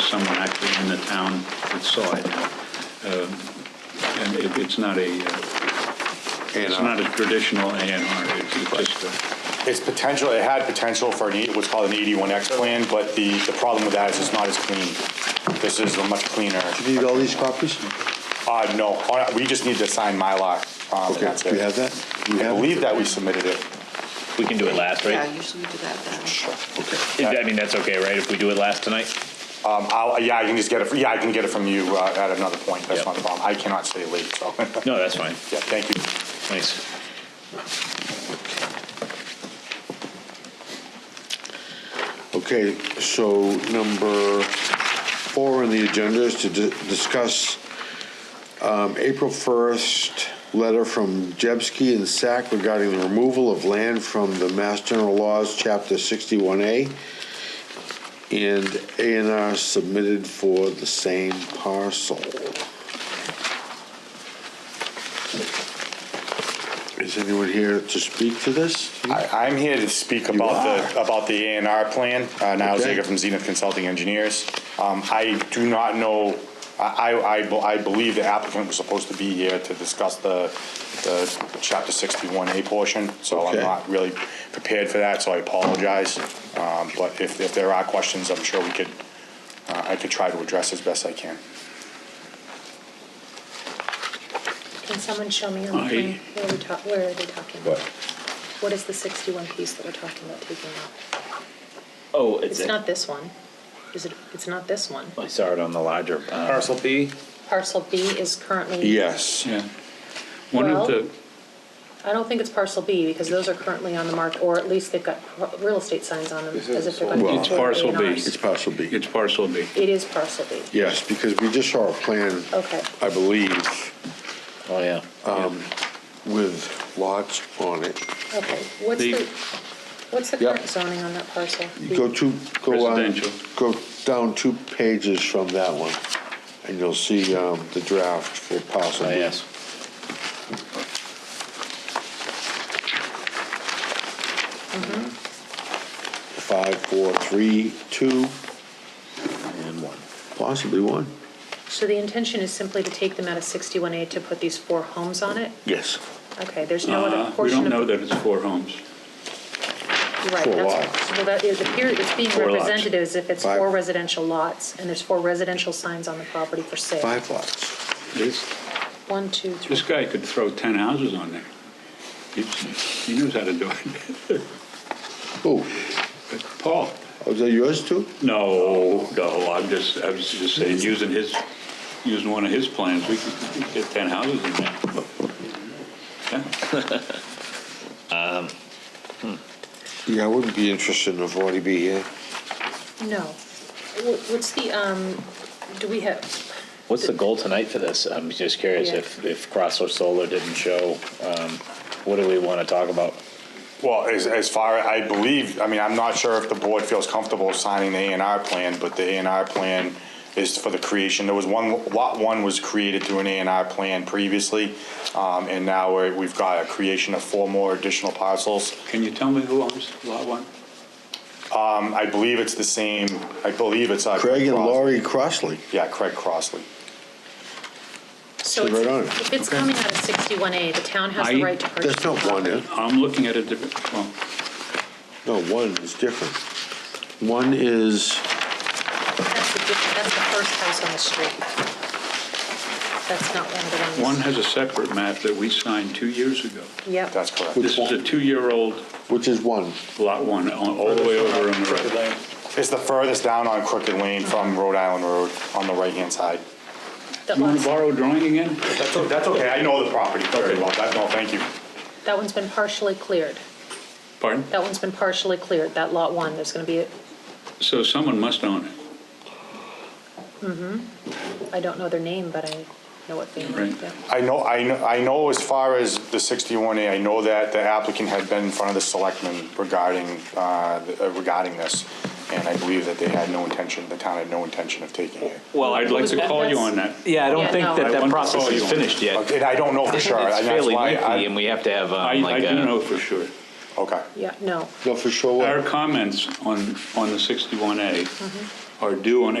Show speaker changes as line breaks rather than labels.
someone actually in the town that saw it. Um, And it- it's not a, uh,
uh,
it's not a traditional A and R, it's it's just a,
It's potential, it had potential for an, E- what's called an 81X plan, but the, the problem with that is it's not as clean. This is a much cleaner.
Do you need all these copies?
Uh, no, uh, we just need to sign Mylar, um, and
Okay,
that's
do you have
it.
that? Do you
I
have it?
believe that we submitted it.
We can do it last,
Yeah,
right?
usually we do that then.
I mean, that's okay, right, if we do it last tonight?
Um, I'll, yeah, I can just get it, yeah, I can get it from you, uh, at another point, that's
Yep.
not a problem. I cannot stay late, so. Yeah,
No, that's fine,
thank you.
thanks.
Okay, so number four on the agenda is to di- discuss um, April 1st letter from Jebsky and SAC regarding the removal of land from the Mass General Laws, Chapter 61A, and A and R submitted for the same parcel. Is anyone here to speak to this?
I, I'm here to speak about the, about the A and R plan, uh, Niall
Okay.
Zager from Zenith Consulting Engineers. Um, I do not know, I, I- I, be- I believe the applicant was supposed to be here to discuss the, the chapter sixty-one A portion, so I'm
Okay.
not really prepared for that, so I apologize. Um, but if, if there are questions, I'm sure we could, uh, I could try to address as best I can.
Can someone show me on
I-
the plan where we talk, where are they talking?
What?
What is the sixty-one piece that we're talking about taking out?
Oh, it's,
It's not this one, is it, it's not this one.
I saw it on the larger. uh,
Parcel B,
Parcel B is currently.
Yes.
yeah. One of
Well-
the,
I don't think it's parcel B, because those are currently on the market, or at least they've got pro- real estate signs on them, as if they're gonna be.
It's
toward
parcel B.
A&Rs.
It's parcel B.
it's parcel B.
It is parcel B,
Yes, because we just saw a plan,
okay.
I believe,
Oh, yeah.
with lots on it.
Okay, what's
The-
the, what's the
Yep.
current zoning on that parcel?
You Go two, go on,
Residential.
go down two pages from that one, and you'll see um, the draft for
Oh,
parcel B.
yes.
Five, four, three, two,
And one.
possibly one.
So the intention is simply to take them out of sixty-one A to put these four homes on it?
Yes.
Okay, there's no
Uh,
other
We
portion
don't
of.
know that it's four homes.
Right,
Four
that's,
lots.
well, that, it appears, it's being
Four lots.
represented as if it's
Five.
four residential lots, and there's four residential signs on the property for sale.
Five lots.
This,
One, two, three.
this guy could throw 10 houses on there. He's- He knows how to do it.
Oh,
But Paul?
was that yours too?
No, no, I'm just, I was just saying, using his, using one of his plans, we could we could get 10 houses in there. Yeah,
Yeah, I wouldn't be interested in a 40B here.
No. Wh- What's the, um, do we have,
What's the goal tonight for this? I'm just curious
Yeah.
if, if Crossover Solar didn't show, um, what do we want to talk about?
Well, as, as far, I believe, I mean, I'm not sure if the board feels comfortable signing the A and R plan, but the A and R plan is for the creation, there was one, lot one was created through an A and R plan previously, um, and now we're, we've got a creation of four more additional parcels.
Can you tell me who owns Lot 1?
Um, I believe it's the same, I believe it's, uh.
Craig and
Crosley.
Laurie Crossley.
Yeah, Craig Crossley.
so
Sit
it's-
right on it.
if it's coming out of sixty-one A, the town has
I-
the right to purchase
That's
the
not one, eh?
property.
I'm looking at a different, well,
No, one is different. One is,
That's the, diff- that's the first house on the street. That's not one of the
one
ones.
has a separate map that we signed two years ago.
Yep.
That's correct.
This is a two-year-old
which is one.
Lot 1, on- all the way over on the
Crooked
right.
Lane.
It's the furthest down on Crooked Lane from Rhode Island Road on the right-hand side.
That
You want to
one's,
borrow a drawing again?
That's, o- that's okay, I know the property very well, that's, no, thank you.
that one's been partially cleared.
Pardon?
That one's been partially cleared, that lot one, there's gonna be, a-
So someone must own it,
I don't know their name, but I know what they
Right.
mean, yeah.
I know, I know, I know as far as the 61A, I know that the applicant had been in front of the selectmen regarding, uh, regarding this, and I believe that they had no intention, the town had no intention of taking it.
Well,
I'd like to call you on that.
Yeah, I
Yeah,
don't think
no. I
that that
wonder-
process
Oh, you
is
want-
finished yet.
And I don't know for sure.
It's
and that's
fairly
why I-
lengthy, and we have to have,
I,
um,
I
like,
do
a-
know for sure.
Okay,
Yeah, no.
No, for sure.
Mm-hmm. Our comments on, on the 61A are due on